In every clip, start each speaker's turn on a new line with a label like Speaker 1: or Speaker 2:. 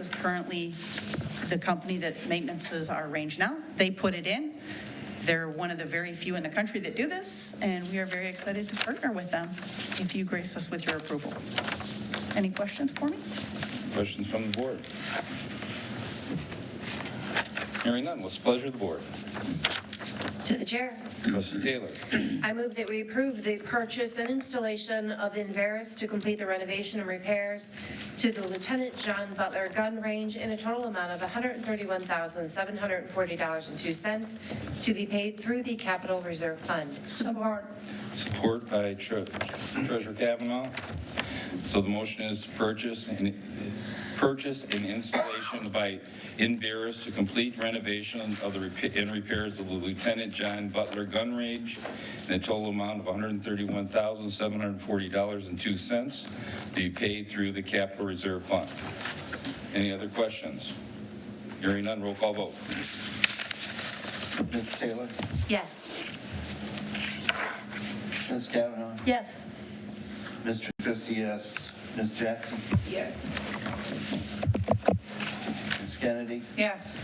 Speaker 1: is currently the company that maintenances our range now. They put it in. They're one of the very few in the country that do this, and we are very excited to partner with them if you grace us with your approval. Any questions for me?
Speaker 2: Questions from the board? Hearing none, what's the pleasure of the board?
Speaker 3: To the chair.
Speaker 2: Trustee Taylor,
Speaker 3: I move that we approve the purchase and installation of Inveras to complete the renovation and repairs to the Lieutenant John Butler Gun Range in a total amount of $131,740.02 to be paid through the Capital Reserve Fund. Support.
Speaker 2: support by Tre- Treasurer Kavanaugh. So the motion is to purchase and, purchase and installation by Inveras to complete renovation of the, repa- and repairs of the Lieutenant John Butler Gun Range in a total amount of $131,740.02 to be paid through the Capital Reserve Fund. Any other questions? Hearing none, roll call vote.
Speaker 4: Ms. Taylor?
Speaker 3: Yes.
Speaker 4: Ms. Kavanaugh?
Speaker 3: Yes.
Speaker 4: Mr. Trubisky, yes. Ms. Jackson?
Speaker 3: Yes.
Speaker 4: Ms. Kennedy?
Speaker 1: Yes.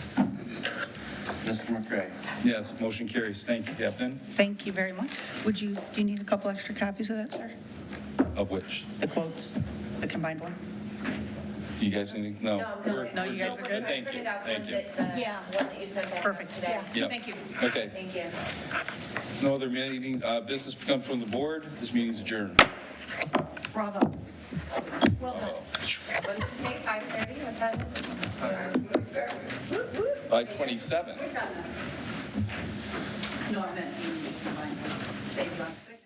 Speaker 4: Mr. McCray?
Speaker 2: Yes, motion carries. Thank you, Captain.
Speaker 1: Thank you very much. Would you, do you need a couple extra copies of that, sir?
Speaker 2: Of which,
Speaker 1: The quotes, the combined one?
Speaker 2: you guys need, no.
Speaker 3: No, I'm
Speaker 2: we're-
Speaker 3: good.
Speaker 1: No, you guys are good?
Speaker 3: I
Speaker 2: Thank you,
Speaker 3: printed out the
Speaker 2: thank
Speaker 3: ones
Speaker 2: you.
Speaker 3: that, the
Speaker 5: Yeah.
Speaker 3: one that you sent back
Speaker 1: Perfect.
Speaker 3: today.
Speaker 2: Yeah.
Speaker 1: Thank you.
Speaker 2: Okay,
Speaker 3: Thank you.
Speaker 2: no other meeting, uh, business come from the board. This meeting's adjourned.
Speaker 5: Bravo. Well done.
Speaker 3: What did you say, 5:30? What time is it?
Speaker 2: By 27.
Speaker 1: No, I meant you combined. Save you on six.
Speaker 2: Oh.